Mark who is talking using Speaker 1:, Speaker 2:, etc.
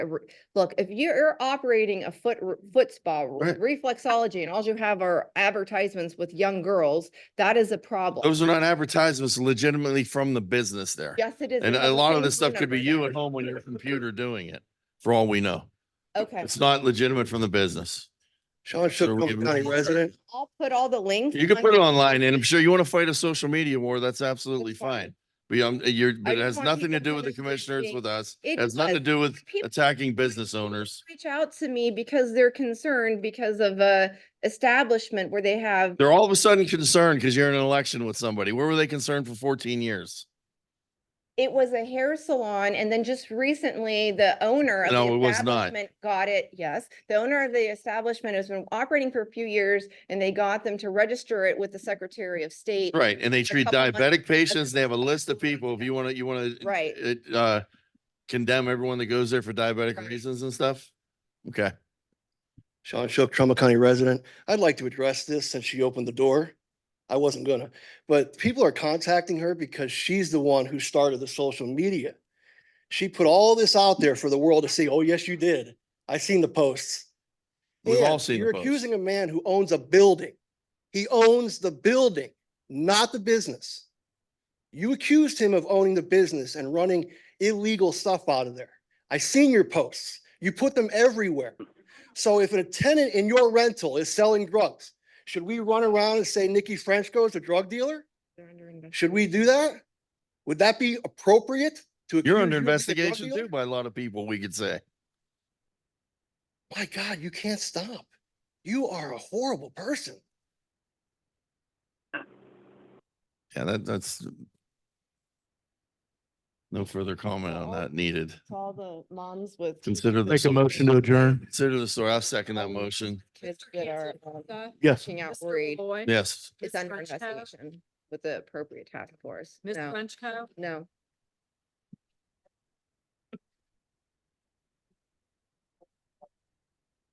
Speaker 1: a re- look, if you're operating a foot, r- foot spa with reflexology and all you have are advertisements with young girls, that is a problem.
Speaker 2: Those are not advertisements legitimately from the business there.
Speaker 1: Yes, it is.
Speaker 2: And
Speaker 1: It has
Speaker 2: a
Speaker 1: the
Speaker 2: lot of
Speaker 1: same
Speaker 2: this
Speaker 1: phone
Speaker 2: stuff could be
Speaker 1: number
Speaker 2: you
Speaker 1: there.
Speaker 2: at home on your computer doing it, for all we know.
Speaker 1: Okay,
Speaker 2: It's not legitimate from the business.
Speaker 3: Sean
Speaker 2: Should
Speaker 3: Shook,
Speaker 2: we give him-
Speaker 3: Cook County resident.
Speaker 1: I'll put all the links.
Speaker 2: You can
Speaker 1: on
Speaker 2: put it
Speaker 1: your-
Speaker 2: online and I'm sure you want to fight a social media war. That's absolutely
Speaker 1: fine.
Speaker 2: fine. But yeah, I'm- you're, but it
Speaker 1: just
Speaker 2: has
Speaker 1: want
Speaker 2: nothing
Speaker 1: people
Speaker 2: to do
Speaker 1: to
Speaker 2: with the
Speaker 1: understand
Speaker 2: commissioners
Speaker 1: being-
Speaker 2: with us.
Speaker 1: It
Speaker 2: It Has nothing to
Speaker 1: does.
Speaker 2: do with
Speaker 1: People-
Speaker 2: attacking business owners.
Speaker 1: Reach out to me because they're concerned because of a establishment where they have
Speaker 2: They're all of a sudden concerned because you're in an election with somebody. Where were they concerned for fourteen years?
Speaker 1: It was a hair salon and then just recently the owner of
Speaker 2: No, it
Speaker 1: the
Speaker 2: was not.
Speaker 1: establishment got it, yes. The owner of the establishment has been operating for a few years and they got them to register it with the Secretary of State.
Speaker 2: Right, and they
Speaker 1: a
Speaker 2: treat
Speaker 1: couple months-
Speaker 2: diabetic patients, they have a list of
Speaker 1: couple months
Speaker 2: people, if
Speaker 1: ago.
Speaker 2: you wanna, you wanna.
Speaker 1: Right.
Speaker 2: uh, Uh, condemn everyone that goes there for diabetic
Speaker 1: Right.
Speaker 2: reasons and stuff? Okay,
Speaker 3: Sean Shook, Trumbull County resident. I'd like to address this since she opened the door. I wasn't gonna, but people are contacting her because she's the one who started the social media. She put all this out there for the world to see. Oh, yes, you did. I seen the posts.
Speaker 2: we've all
Speaker 3: And
Speaker 2: seen
Speaker 3: You're
Speaker 2: the post.
Speaker 3: accusing a man who owns a building. He owns the building, not the business. You accused him of owning the business and running illegal stuff out of there. I seen your posts. You put them everywhere. So if a tenant in your rental is selling drugs, should we run around and say Nikki Frenchco is a drug dealer?
Speaker 1: They're under investigation.
Speaker 3: Should we do that? Would that be appropriate to? accuse
Speaker 2: You're under
Speaker 3: you of being a drug
Speaker 2: investigation
Speaker 3: dealer?
Speaker 2: too by a lot of people, we could say.
Speaker 3: My God, you can't stop. You are a horrible person.
Speaker 2: Yeah, that, that's. No further comment on
Speaker 1: all-
Speaker 2: that needed.
Speaker 1: It's all the moms with.
Speaker 2: Consider. the
Speaker 4: Make a
Speaker 2: story.
Speaker 4: motion to adjourn.
Speaker 2: Consider the story. I'll second that motion.
Speaker 1: Kids
Speaker 5: Mr.
Speaker 1: that are
Speaker 5: Hanson,
Speaker 1: um,
Speaker 5: Lisa,
Speaker 4: Yes.
Speaker 1: reaching out
Speaker 5: Mr.
Speaker 1: worried
Speaker 5: Malloy,
Speaker 2: Yes.
Speaker 1: is
Speaker 5: Ms.
Speaker 1: under
Speaker 5: Frenchco,
Speaker 1: investigation with the appropriate task force.
Speaker 5: Ms.
Speaker 1: No,
Speaker 5: Frenchco,
Speaker 1: no,